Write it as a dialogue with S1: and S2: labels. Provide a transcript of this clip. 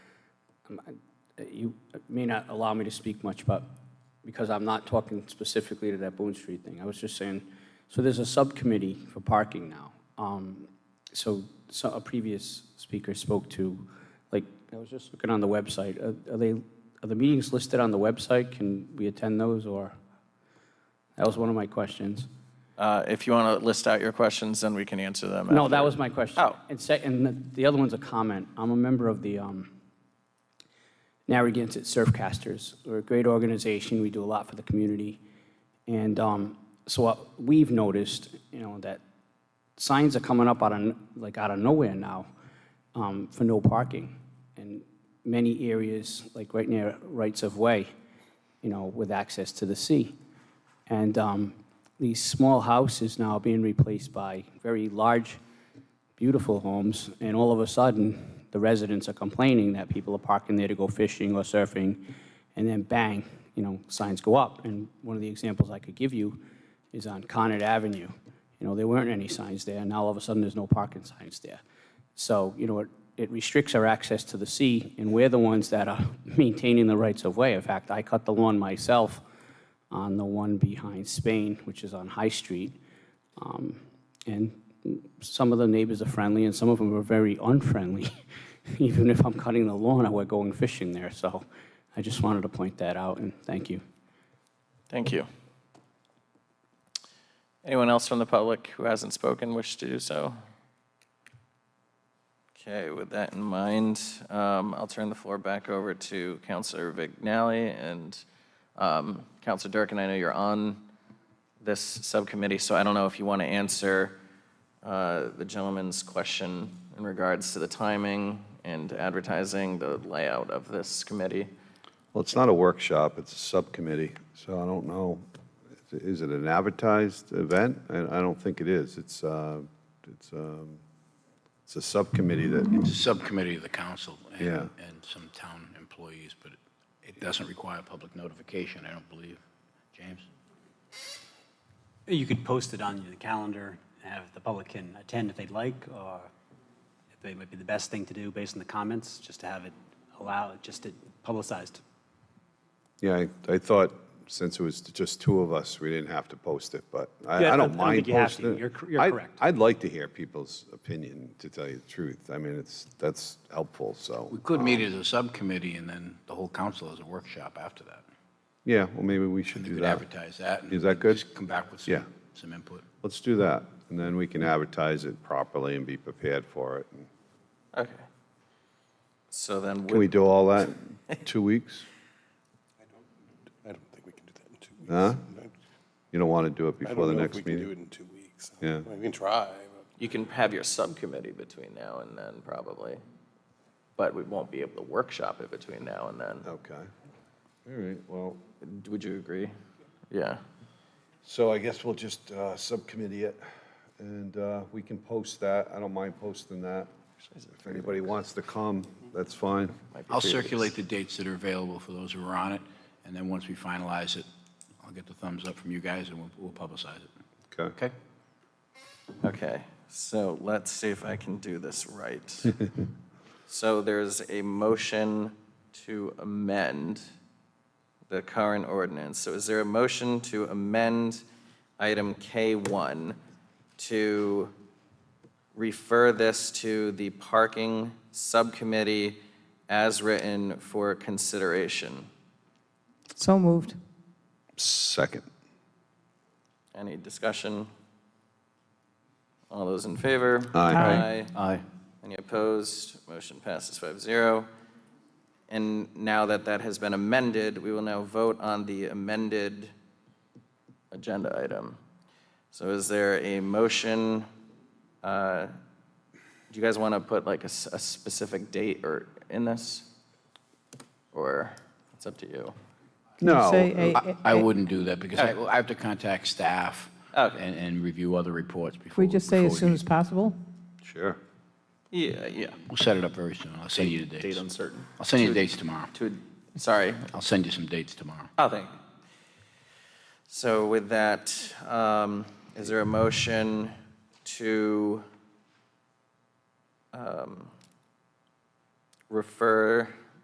S1: you may not allow me to speak much, but, because I'm not talking specifically to that Boone Street thing. I was just saying, so there's a subcommittee for parking now. Um, So, so a previous speaker spoke to, like, I was just looking on the website, are are they, are the meetings listed on the website? Can we attend those, or? That was one of my questions.
S2: Uh, If you want to list out your questions, then we can answer them.
S1: No, that
S2: after.
S1: was my question.
S2: Oh.
S1: And sec and the- the other one's a comment. I'm a member of the um, Narragansett Surfcasters. We're a great organization. We do a lot for the community. And um, so what we've noticed, you know, that signs are coming up out of, n- like, out of nowhere now um, for no parking. And many areas, like right near rights of way, you know, with access to the sea. And um, these small houses now are being replaced by very large, beautiful homes, and all of a sudden, the residents are complaining that people are parking there to go fishing or surfing, and then bang, you know, signs go up. And one of the examples I could give you is on Connet Avenue. You know, there weren't any signs there, and now all of a sudden, there's no parking signs there. So, you know, it- it restricts our access to the sea, and we're the ones that are maintaining the rights of way. In fact, I cut the lawn myself on the one behind Spain, which is on High Street. Um, And some of the neighbors are friendly, and some of them are very unfriendly. Even if I'm cutting the lawn, we're going fishing there, so I just wanted to point that out, and thank you.
S2: Thank you. Anyone else from the public who hasn't spoken wish to do so? Okay, with that in mind, um, I'll turn the floor back over to Counselor Vignali and um, Counselor Durkin. I know you're on this subcommittee, so I don't know if you want to answer uh, the gentleman's question in regards to the timing and advertising, the layout of this committee.
S3: Well, it's not a workshop, it's a subcommittee, so I don't know. Is it an advertised event? I, I don't think it is. It's, uh, it's, um, it's a subcommittee that,
S4: It's a subcommittee of the council and,
S3: Yeah.
S4: and some town employees, but it doesn't require public notification, I don't believe. James?
S5: You could post it on the calendar, have the public can attend if they'd like, or if they might be the best thing to do based on the comments, just to have it allow, just it publicized.
S3: yeah, I, I thought since it was just two of us, we didn't have to post it, but I,
S5: Yeah,
S3: I
S5: I
S3: don't
S5: don't
S3: mind
S5: think you have to.
S3: posting it.
S5: You're cor- you're
S3: I-
S5: correct.
S3: I'd like to hear people's opinion, to tell you the truth. I mean, it's, that's helpful,
S4: We
S3: so.
S4: could meet as a subcommittee and then the whole council as a workshop after that.
S3: Yeah, well, maybe we should
S4: And
S3: do
S4: you could
S3: that.
S4: advertise that. and
S3: Is that good?
S4: Just come back with
S3: Yeah.
S4: some, some input.
S3: Let's do that, and then we can advertise it properly and be prepared for it. and-
S2: Okay. So then,
S3: Can we
S2: with-
S3: do all that in two weeks?
S6: I don't think we can do that in two weeks.
S3: Huh?
S6: I-
S3: You don't want to do it
S6: I
S3: before
S6: don't
S3: the
S6: know if
S3: next
S6: we
S3: meeting?
S6: can do it in two weeks.
S3: Yeah.
S6: I mean, We can try, but.
S2: you can have your subcommittee between now and then, probably. But we won't be able to workshop it between now and then.
S3: Okay. All right, well,
S2: Would you agree? Yeah.
S3: so I guess we'll just uh, subcommittee it, and uh, we can post that. I don't mind posting that. If anybody wants to come, that's fine.
S2: Might be
S4: I'll
S2: three weeks.
S4: circulate the dates that are available for those who are on it, and then once we finalize it, I'll get the thumbs up from you guys and we'll, we'll publicize it.
S3: Okay.
S4: Okay?
S2: Okay, so let's see if I can do this right. So there's a motion to amend the current ordinance. So is there a motion to amend item K1 to refer this to the parking subcommittee as written for consideration?
S7: So moved.
S3: Second.
S2: Any discussion? All those in favor?
S3: Aye.
S2: Aye. Any opposed? Motion passes 5-0. And now that that has been amended, we will now vote on the amended agenda item. So is there a motion? uh, Do you guys want to put like a, s- a specific date or in this? Or it's up to you?
S7: Say
S3: No,
S7: a-
S4: I, I wouldn't do that because I, I have to contact staff
S2: Okay.
S4: and, and review other reports
S7: If
S4: before.
S7: we just say
S4: before
S7: as soon
S4: meet.
S7: as possible?
S3: sure.
S2: Yeah, yeah.
S4: We'll set it up very soon. I'll send you the dates.
S2: Date uncertain.
S4: I'll send you the dates tomorrow.
S2: To, sorry,
S4: I'll send you some dates tomorrow.
S2: Oh, thank you. So with that, um, is there a motion to um, refer